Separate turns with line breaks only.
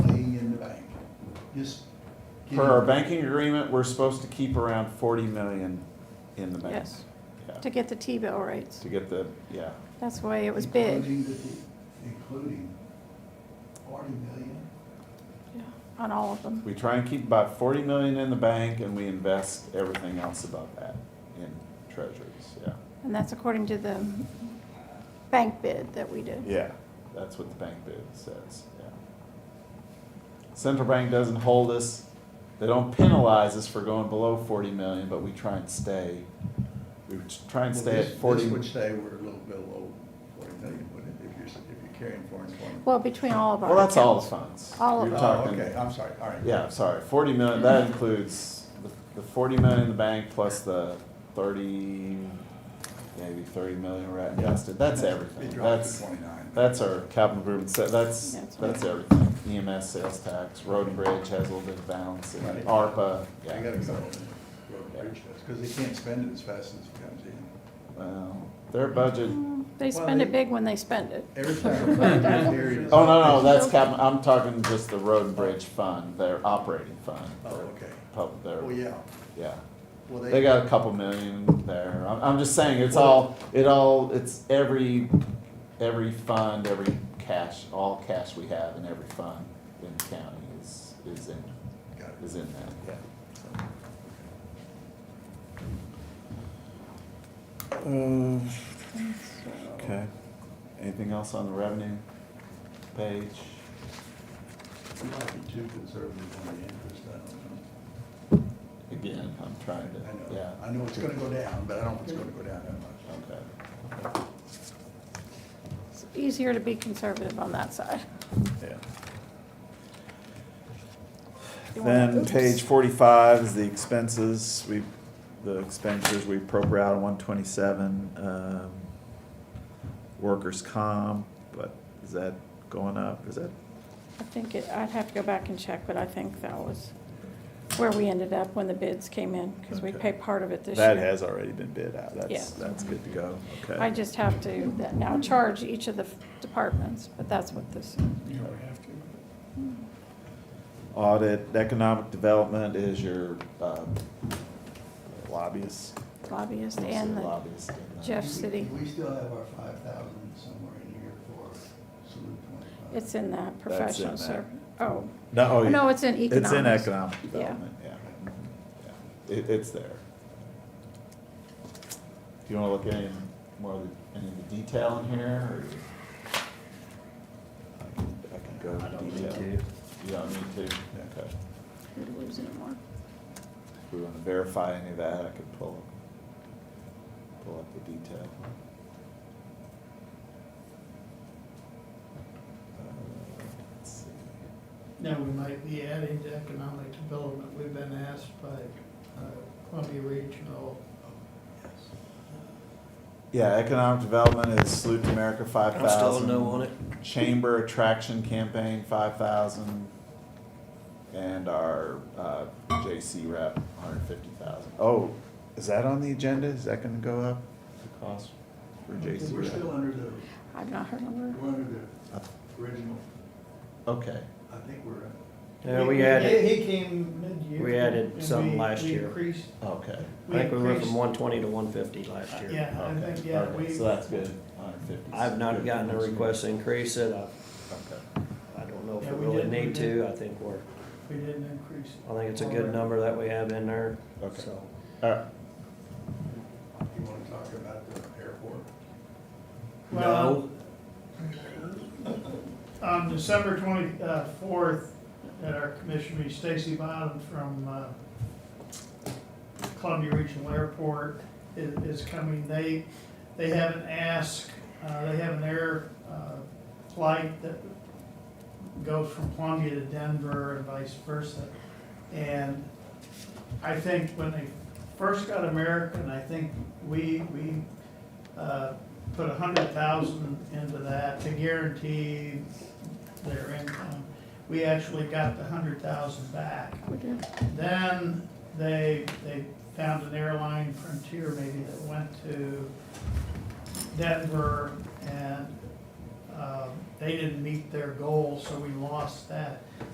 just. give
Per our
it-
banking agreement, we're supposed to keep around forty million in the bank.
Yes.
Yeah,
to get the T-bill rates.
To get the, yeah,
That's why it was big
Including, the- including forty million.
yeah, on all of them.
we try and keep about forty million in the bank and we invest everything else above that in treasuries, yeah.
And that's according to the bank bid that we did.
Yeah, that's what the bank bid says, yeah. Central bank doesn't hold us, they don't penalize us for going below forty million, but we try and stay, we try and stay
Well,
at
this-
forty.
This would say we're a little below forty million, wouldn't it, if you're, if you're carrying foreign foreign.
Well, between all of our.
Well, that's all the
accounts.
funds.
All of
You're
it.
Oh,
talking-
okay, I'm sorry, all right.
Yeah, sorry, forty million, that includes the- the forty million in the bank plus the thirty, maybe thirty million we're at invested, that's everything.
It dropped to
That's,
twenty-nine.
that's our capital improvement, set. that's,
That's right.
that's everything. EMS, sales tax, road and bridge has a little bit of balance, and
Right.
ARPA,
I
yeah.
gotta go road and bridge test, because they can't spend it as fast as it comes in.
Well, their budget,
Mm, They
Well,
spend
they-
it big when they spend it.
Every time. I come here, it's-
oh, no, no, that's cap, I'm talking just the road and bridge fund, their operating fund.
Oh,
their
okay.
pub- their-
Oh, yeah,
yeah.
well,
They
they,
got a couple million there. I'm, I'm just saying, it's all, it all, it's every, every fund, every cash, all cash we have in every fund in the county is, is in,
got it.
is in that, yeah.
Uh,
Okay. Anything else on the revenue page?
You might be too conservative on the interest, I don't
Again, I'm trying to,
know. I
yeah.
know, I know it's gonna go down, but I don't think it's gonna go down that much.
Okay.
It's easier to be conservative on that side.
Yeah.
You wanna-
Then page forty-five is the expenses, we, the expenditures we appropriate out of one twenty-seven, um, workers' comp, but is that going up, is that?
I think it, I'd have to go back and check, but I think that was where we ended up when the bids came in, because we
Okay.
pay part of it this year.
That has already been bid out, that's,
Yeah.
that's good to go,
I
okay.
just have to that now charge each of the departments, but that's what this,
You don't have to.
Audit, economic development is your, um, lobbyist.
lobbyist
Who's
and
your
the,
lobbyist in uh, that?
Jeff City.
We still have our five thousand somewhere in here for salute twenty-five.
it's in that
in
professional
that.
ser, oh,
No, oh,
no,
yeah.
it's in economics.
It's in economic
Yeah.
development, yeah. Yeah. It, it's there. Do you wanna look at any more of the, any of the detail in here, or? I can, I can go
I
into
don't need
detail.
to.
You don't need to, okay.
We're losing it more.
If we wanna verify any of that, I could pull, pull up the detail. Uh, Let's see.
Now, we might be adding to economic development. We've been asked by uh, Columbia Regional.
Yeah, economic development is Salute to America five
I'm still a
thousand.
no on it.
Chamber attraction campaign five thousand. And our, uh, JC rep, hundred fifty thousand. Oh, is that on the agenda? Is that gonna go up? The cost for JC
We're still
rep?
under the,
I've not heard a word.
we're under the original,
Okay,
I think we're,
Yeah, we added,
He came mid-year.
we added
and
some
we-
last
we
year.
increased-
okay,
I think we went
increased-
from one twenty to one fifty last year.
Yeah, I think,
okay,
yeah,
okay,
we,
so that's good, hundred fifty.
I've not gotten a request to increase it. I,
Okay,
I don't know if
Yeah,
we
we
really
did, we
need
did.
to. I think we're,
we didn't increase.
I think it's a good number that we have in there,
Okay.
so.
alright,
you wanna talk about the airport?
Well,
No,
on December twenty-fourth, at our commission meeting, Stacy Bottom from uh, Columbia Regional Airport i- is coming. They, they have an ask, uh, they have an air uh, flight that goes from Columbia to Denver and vice versa. And I think when they first got American, I think we, we uh, put a hundred thousand into that to guarantee their income. We actually got the hundred thousand back.
We did.
Then they, they found an airline, Frontier maybe, that went to Denver uh, and, um, they didn't meet their goal, so we lost that.